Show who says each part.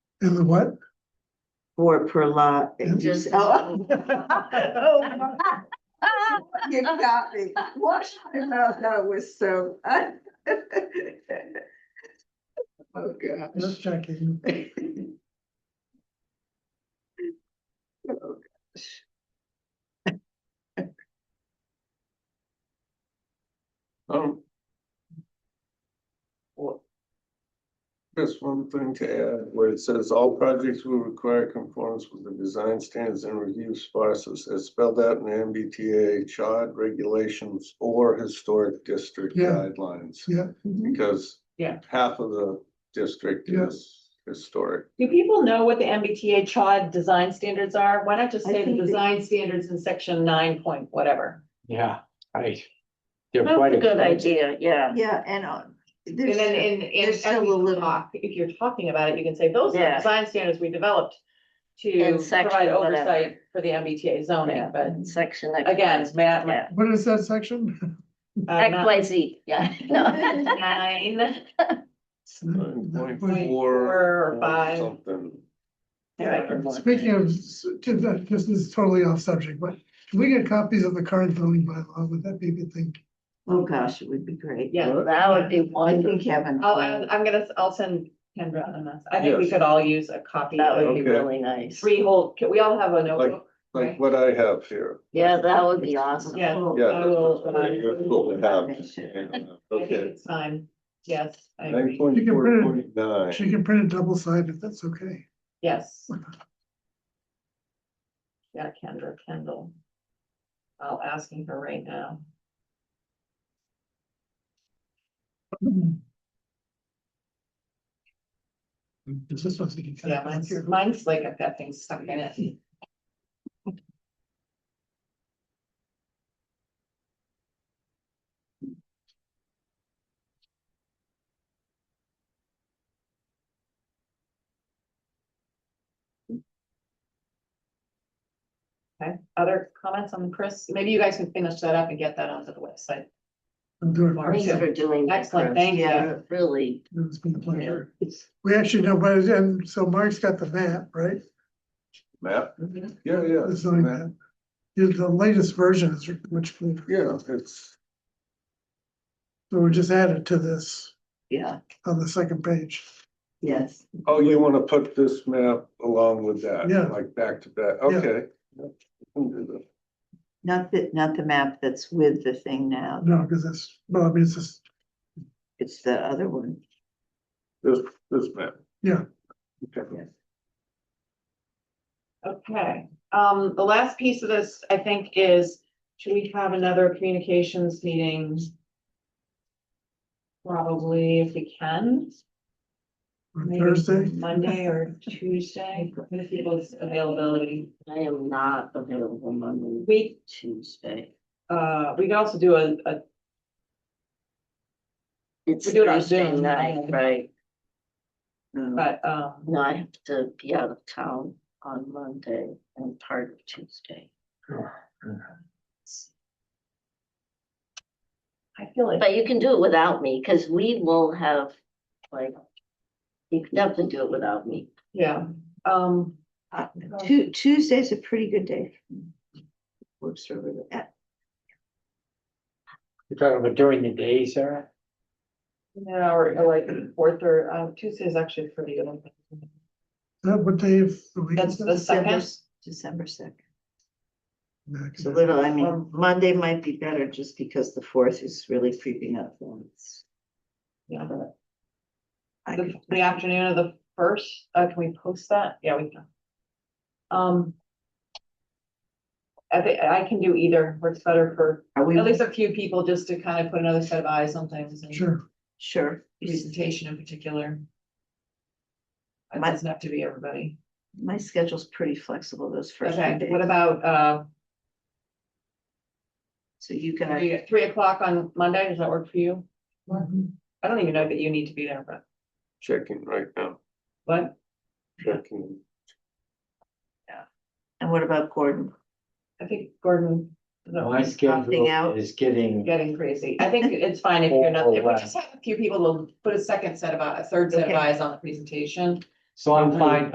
Speaker 1: And the what?
Speaker 2: Four per lot.
Speaker 1: Yeah.
Speaker 2: Just- oh. Oh, You got me. What? No, that was so. Oh,
Speaker 1: Just
Speaker 2: gosh.
Speaker 1: checking.
Speaker 2: Oh, gosh.
Speaker 3: Um. Well. Just one thing to add, where it says all projects will require conformance with the design standards and review process as spelled out in MBTA chart regulations or historic district
Speaker 1: Yeah.
Speaker 3: guidelines.
Speaker 1: Yeah,
Speaker 2: Mhm.
Speaker 3: Because.
Speaker 4: Yeah.
Speaker 3: Half of the district
Speaker 1: Yeah.
Speaker 3: is historic.
Speaker 4: Do people know what the MBTA CHOD design standards are? Why not just
Speaker 2: I
Speaker 4: say the
Speaker 2: think they-
Speaker 4: design standards in section nine point whatever?
Speaker 5: Yeah, I. They're
Speaker 4: That's
Speaker 5: quite
Speaker 4: a good
Speaker 5: expensive.
Speaker 4: idea, yeah.
Speaker 2: Yeah, and uh,
Speaker 4: And then
Speaker 2: there's,
Speaker 4: in, in,
Speaker 2: there's
Speaker 4: as
Speaker 2: still
Speaker 4: we
Speaker 2: a little-
Speaker 4: talk, if you're talking about it, you can say those are the
Speaker 6: Yeah.
Speaker 4: design standards we developed
Speaker 6: In
Speaker 4: to
Speaker 6: section
Speaker 4: provide
Speaker 6: whatever.
Speaker 4: oversight for the MBTA zoning, but
Speaker 6: section. that-
Speaker 4: again, it's Matt.
Speaker 6: Yeah.
Speaker 1: what is that section?
Speaker 4: uh,
Speaker 6: X,
Speaker 4: not-
Speaker 6: Y, Z, yeah. No.
Speaker 4: Nine,
Speaker 3: Nine point
Speaker 4: Point
Speaker 3: four.
Speaker 4: four or five.
Speaker 3: Something.
Speaker 1: Speaking of, s- to the- this is totally off subject, but can we get copies of the current zoning bylaw? Would that be a good thing?
Speaker 2: oh, gosh, it would be great. Oh,
Speaker 4: Yeah. Oh,
Speaker 6: That would be
Speaker 2: I
Speaker 6: one.
Speaker 2: think Kevin.
Speaker 4: I'll, I'm I'm gonna, I'll send Kendra on this. I think we could all use a copy
Speaker 6: That
Speaker 4: of
Speaker 6: would be
Speaker 3: Okay.
Speaker 6: really nice.
Speaker 4: three whole, we all have a notebook.
Speaker 3: Like
Speaker 4: Right.
Speaker 3: what I have here.
Speaker 6: Yeah, that would be awesome.
Speaker 4: Yeah.
Speaker 2: Oh,
Speaker 3: Yeah.
Speaker 4: I will, uh,
Speaker 3: that's what we have.
Speaker 4: I think
Speaker 3: Okay,
Speaker 4: it's time. Yes, I
Speaker 3: nine
Speaker 4: agree.
Speaker 3: point
Speaker 1: You
Speaker 3: four
Speaker 1: can
Speaker 3: point nine.
Speaker 1: She can print it double sided, that's okay.
Speaker 4: Yes. Yeah, Kendra Kendall. I'll asking her right now.
Speaker 1: Is this supposed to be?
Speaker 4: Yeah, mine's, mine's like I've got things stuck in it. Okay, other comments on Chris? Maybe you guys can finish that up and get that onto the website.
Speaker 1: I'm doing
Speaker 4: Mark.
Speaker 1: it.
Speaker 6: Thanks for doing that.
Speaker 4: Excellent,
Speaker 6: Chris.
Speaker 4: thank you.
Speaker 6: Yeah, Really.
Speaker 1: It's been a pleasure.
Speaker 6: It's-
Speaker 1: We actually know, but and so Mark's got the map, right?
Speaker 3: Map? Yeah, yeah.
Speaker 1: The zoning
Speaker 3: map.
Speaker 1: map. The the latest version is much clearer.
Speaker 3: Yeah, it's,
Speaker 1: So we just added to this
Speaker 6: Yeah,
Speaker 1: on the second page.
Speaker 6: yes.
Speaker 3: oh, you wanna put this map along with that?
Speaker 1: Yeah.
Speaker 3: Like back to back,
Speaker 1: Yeah.
Speaker 3: okay. Yep, we can do
Speaker 2: Not the, not the map that's with the thing now,
Speaker 1: No, because that's, well, I mean, it's just,
Speaker 2: it's the other one.
Speaker 3: This, this this map.
Speaker 1: Yeah.
Speaker 3: Okay.
Speaker 4: Okay, um, the last piece of this, I think, is, should we have another communications meeting? Probably if we can.
Speaker 1: on
Speaker 4: maybe
Speaker 1: Thursday.
Speaker 4: Monday or Tuesday, if people's availability.
Speaker 6: I am not available Monday,
Speaker 4: We,
Speaker 6: Tuesday.
Speaker 4: uh, we could also do a, a,
Speaker 6: It's
Speaker 4: We do it on
Speaker 6: Thursday
Speaker 4: Zoom,
Speaker 6: night,
Speaker 4: right?
Speaker 6: right?
Speaker 4: but, um,
Speaker 6: No, I have to be out of town on Monday and part of Tuesday.
Speaker 4: I feel like.
Speaker 6: But you can do it without me, because we will have, like, you can definitely do it without me.
Speaker 4: Yeah, um,
Speaker 2: Uh, Tu- Tuesday's a pretty good day. for me. Works for me. Uh,
Speaker 5: You're talking about during the day, Sarah?
Speaker 4: yeah, or or like fourth or, um, Tuesday is actually pretty good.
Speaker 1: Is That what day of the week?
Speaker 4: That's
Speaker 1: is
Speaker 4: the
Speaker 1: that?
Speaker 4: second.
Speaker 2: December second.
Speaker 1: Yeah, 'cause
Speaker 2: It's a little, I mean,
Speaker 4: Um,
Speaker 2: Monday might be better just because the fourth is really creeping up on us.
Speaker 4: Yeah, the-
Speaker 2: I
Speaker 4: the,
Speaker 2: could-
Speaker 4: the afternoon of the first, uh, can we post that? Yeah, we can. Um. I think, I can do either, works better for
Speaker 2: Are
Speaker 4: at
Speaker 2: we
Speaker 4: least a few people, just to kind of put another set of eyes on things and
Speaker 1: Sure.
Speaker 2: sure?
Speaker 4: presentation in particular. It
Speaker 2: My-
Speaker 4: doesn't have to be everybody.
Speaker 2: My schedule's pretty flexible those first few
Speaker 4: Okay, what
Speaker 2: days.
Speaker 4: about, uh,
Speaker 2: So you can,
Speaker 4: three, three o'clock on Monday, does that work for you? I don't even know that you need to be there, but,
Speaker 3: Checking right now,
Speaker 4: but
Speaker 3: checking.
Speaker 2: and what about Gordon?
Speaker 4: I think Gordon. is that-
Speaker 5: My schedule
Speaker 2: out.
Speaker 5: is getting,
Speaker 4: getting crazy. I think it's fine if you're not, if we
Speaker 5: Overlap.
Speaker 4: just have a few people, we'll put a second set of, eye- a third set of
Speaker 2: Okay.
Speaker 4: eyes on the presentation.
Speaker 5: so I'm fine